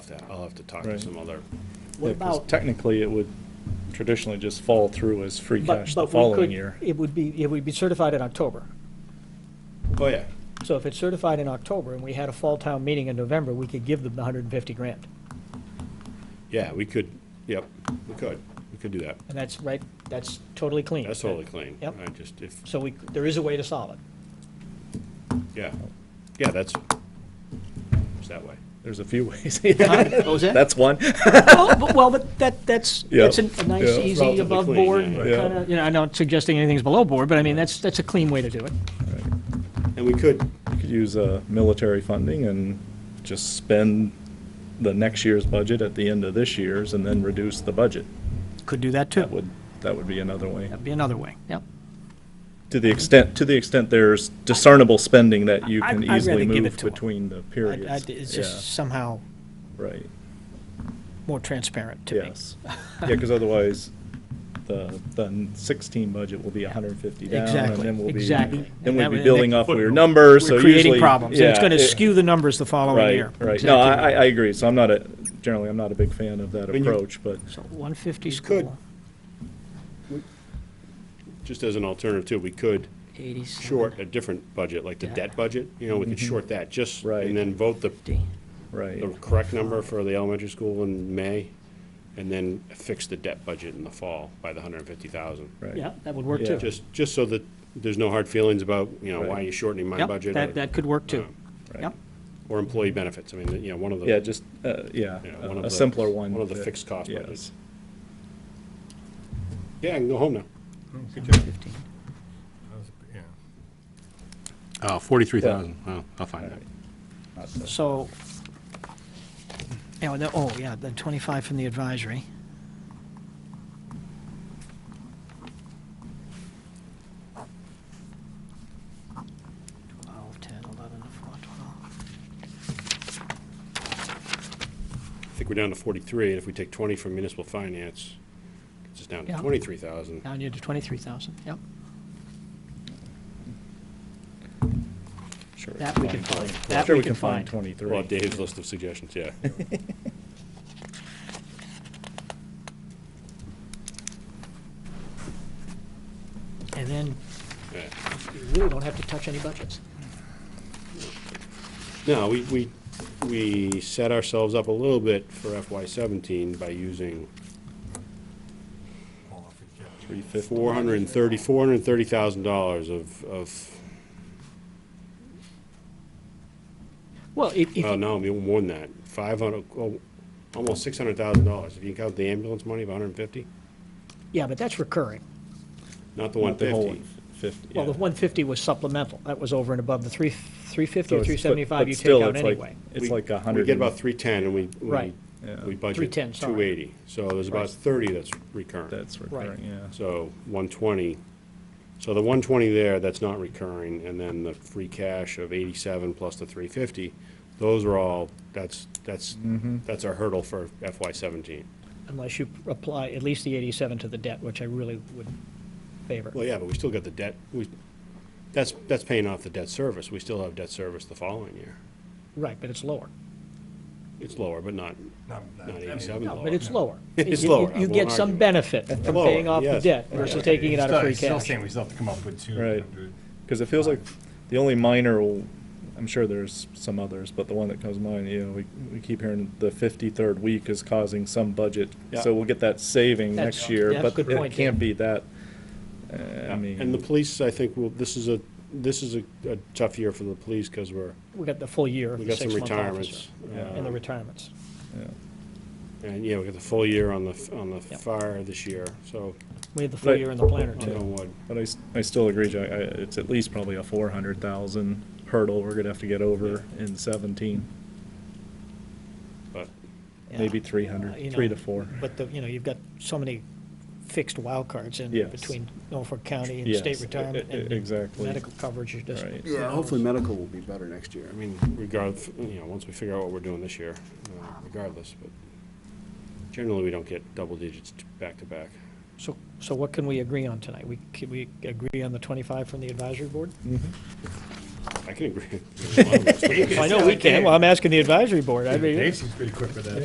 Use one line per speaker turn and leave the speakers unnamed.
that. I'll have to talk to
Right.
some other,
Yeah,
What
'cause
about?
technically, it would traditionally just fall through as free
but-
cash
but
the
we
following
could-
year.
It would be, it would be certified in October.
oh, yeah.
So if it's certified in October and we had a fall town meeting in November, we could give them the hundred and fifty grand.
Yeah, we could, yep, we could. We could do that.
And that's right, that's totally clean.
That's totally clean.
Yep.
I just, if,
So we, there is a way to solve it.
yeah, yeah, that's, it's that way.
There's a few ways.
What was that?
That's one.
Well, but- well, but that, that's,
Yeah.
that's a a nice,
Yeah.
easy,
Relatively
above
clean,
board,
yeah,
yeah.
kind of, you know, I'm not suggesting anything's below board, but I mean, that's, that's a clean way to do it.
And we could,
You could use uh, military funding and just spend the next year's budget at the end of this year's and then reduce the budget.
Could do that
That
too.
would, that would be another way.
That'd be another way, yep.
To the extent, to the extent there's discernible spending that you
I'd-
can
I'd rather
easily
give
move
it to 'em.
between the
I- I-
periods.
It's
Yeah,
just somehow
Right,
more transparent to me.
yes. Yeah, because otherwise, the, the sixteen budget will be hundred and fifty down.
Exactly,
And then we'll be,
exactly.
then
And
we'd
that
be
would-
building off
Footnote.
weird numbers, so
We're
usually.
creating problems, and it's
yeah,
going to
it-
skew the numbers the following year.
Right, right. No, I, I
Exactly.
I agree, so I'm not a, generally, I'm not a big fan of that
When you-
approach, but.
So 150 is
Could.
cool,
just as an alternative too, we could
87.
short a different budget, like the
Yeah.
debt budget, you know, we could short that just,
Mm-hmm. Right.
and then vote the,
Right,
the correct number for the elementary school in May, and then fix the debt budget in the fall by the hundred and fifty thousand.
right.
Yeah, that would work
Yeah.
too.
Just, just so that there's no hard feelings about, you know, why
Right.
are you shortening my
Yep,
budget?
that-
or-
that could work, too.
uh, Right.
Yep,
Or employee benefits, I mean, you know, one of the.
Yeah, just, uh, yeah,
you know, one of
a
the-
simpler one.
One of the
that-
fixed cost budgets.
Yes.
Yeah, I can go home now.
115.
Oh, forty-three
43,000.
oh, I'll find out.
So, yeah, well, the- oh, yeah, the 25 from the advisory. Twelve, 10, 11, 12, 12.
I think we're down to forty-three, and if we take twenty from municipal finance, it's just down to
Yeah.
twenty-three thousand.
Down you to 23,000, yep.
Sure.
That we can find. That
Sure, we can find
Well,
twenty-three.
Dave's list of suggestions, yeah.
And then
yeah.
you really don't have to touch any budgets.
No, we, we, we set ourselves up a little bit for FY seventeen by using
Three fifty.
four hundred and thirty, four hundred and thirty thousand dollars of, of,
Well, if, if
Uh,
oh, no, I mean, more than that, five hundred, oh, almost six hundred thousand dollars, if you count the ambulance money of hundred and fifty,
yeah, but that's recurring.
not the one
The whole
fifty.
one fifty,
Well, the
yeah.
150 was supplemental. That was over and above the three 350
So
or
it's- but-
375
but
you take
still,
out
it's like-
anyway.
It's like a
We
hundred.
get about
and-
three-ten, and we, we,
Right.
Yeah.
we budget
310, sorry.
two-eity, so there's about
Right.
thirty that's recurring.
That's recurring, yeah.
So, one-twenty, so the one-twenty there, that's not recurring, and then the free cash of eighty-seven plus the three-fifty, those are all, that's, that's,
Mm-hmm.
that's our hurdle for FY seventeen.
Unless you apply at least the 87 to the debt, which I really would favor.
Well, yeah, but we still got the debt, we, that's, that's paying off the debt service, we still have debt service the following year.
Right, but it's lower.
It's lower, but not, not eighty-seven
No,
lower.
but it's lower.
It's
You- you-
lower. I
You
won't
get some
argue.
benefit from
Lower,
paying off the
yes.
debt versus taking it out of free
Still
cash.
saying we still have to come up with two.
Right. Because it feels like the only minor, w- I'm sure there's some others, but the one that comes to mind, you know, we, we keep hearing the fifty-third week is causing some budget.
Yeah.
So we'll get that saving
That's-
next year,
yeah,
but
good
it
point,
can't
Dave.
be that, uh,
Yeah,
I
And the
mean,
police, I think, will, this is a, this is a, a tough year for the police, because we're,
We got the full year
we
of the
got some
six-month
retirements.
officer. And the
uh,
retirements.
And, yeah, we got the full year on the, f- on the
Yep.
fire this year, so,
We had the full
Right.
year in the planner,
knock
too.
on wood.
but I, s- I still agree, Jack, I, it's at least probably a four hundred thousand hurdle we're gonna have to get over in seventeen,
But,
Yeah.
maybe three
Uh, you
hundred, three
know,
to four.
But the, you know, you've got so many fixed wild cards in
Yes.
between Norfolk County and
Yes,
state
e-
retirement
e-
and
exactly.
medical coverage, you just.
Right.
Yeah, hopefully medical will be better next year.
I mean, regardless, you know, once we figure out what we're doing this year, uh, regardless, but generally, we don't get double digits t- back to back.
So, so what can we agree on tonight? We, can we agree on the 25 from the advisory board?
I can agree. with a lot of those.
Well, I know we can, well, I'm asking the advisory board, I mean.
Dave seems pretty quick with that.